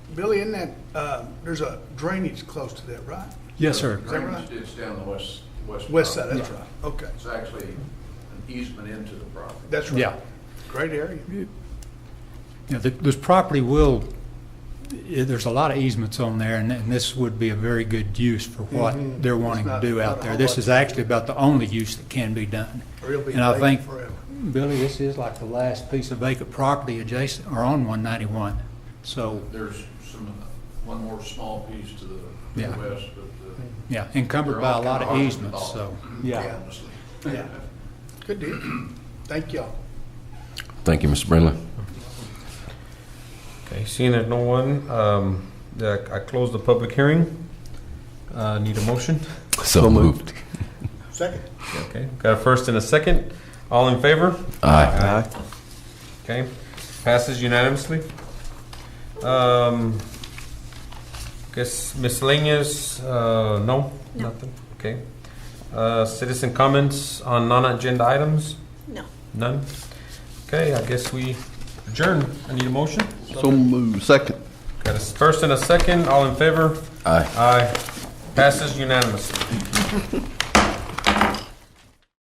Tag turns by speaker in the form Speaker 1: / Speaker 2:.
Speaker 1: Billy, in that, uh, there's a drainage close to that, right?
Speaker 2: Yes, sir.
Speaker 1: that right?
Speaker 3: Drainage ditch down the west, west.
Speaker 1: West side,
Speaker 3: property.
Speaker 1: that's right. Okay,
Speaker 3: It's actually an easement into the property.
Speaker 1: that's right.
Speaker 2: Yeah.
Speaker 1: Great area.
Speaker 2: Yeah, th- this property will, i- there's a lot of easements on there, and and this would be a very good use for what they're wanting
Speaker 1: Mm-hmm.
Speaker 2: to
Speaker 1: not-
Speaker 2: do
Speaker 1: not
Speaker 2: out
Speaker 1: a
Speaker 2: there.
Speaker 1: whole
Speaker 2: This
Speaker 1: lot.
Speaker 2: is actually about the only use that can be done.
Speaker 1: Or it'll be
Speaker 2: And I
Speaker 1: vacant
Speaker 2: think-
Speaker 1: forever.
Speaker 2: Billy, this is like the last piece of vacant property adjacent, or on 191, so,
Speaker 3: There's some, one more small piece to the to the
Speaker 2: Yeah.
Speaker 3: west, but. uh,
Speaker 2: yeah, encumbered by a lot of easements, so, yeah.
Speaker 1: Yeah.
Speaker 3: Honestly.
Speaker 1: Good deal. Thank y'all.
Speaker 4: Thank you, Mr. Brindley.
Speaker 5: Okay, seeing that no one, um, that I close the public hearing. Uh, Need a motion?
Speaker 4: So moved.
Speaker 1: Second.
Speaker 5: Okay, got a first and a second. All in favor?
Speaker 4: Aye.
Speaker 5: Okay, passes unanimously. Um, Guess miscellaneous, uh, no?
Speaker 6: No.
Speaker 5: Nothing. Okay. Uh, Citizen comments on non-agenda items?
Speaker 6: No.
Speaker 5: None? Okay, I guess we adjourn. I need a motion?
Speaker 7: So moved. Second.
Speaker 5: Got a first and a second. All in favor?
Speaker 4: Aye.
Speaker 5: Aye. Passes unanimously.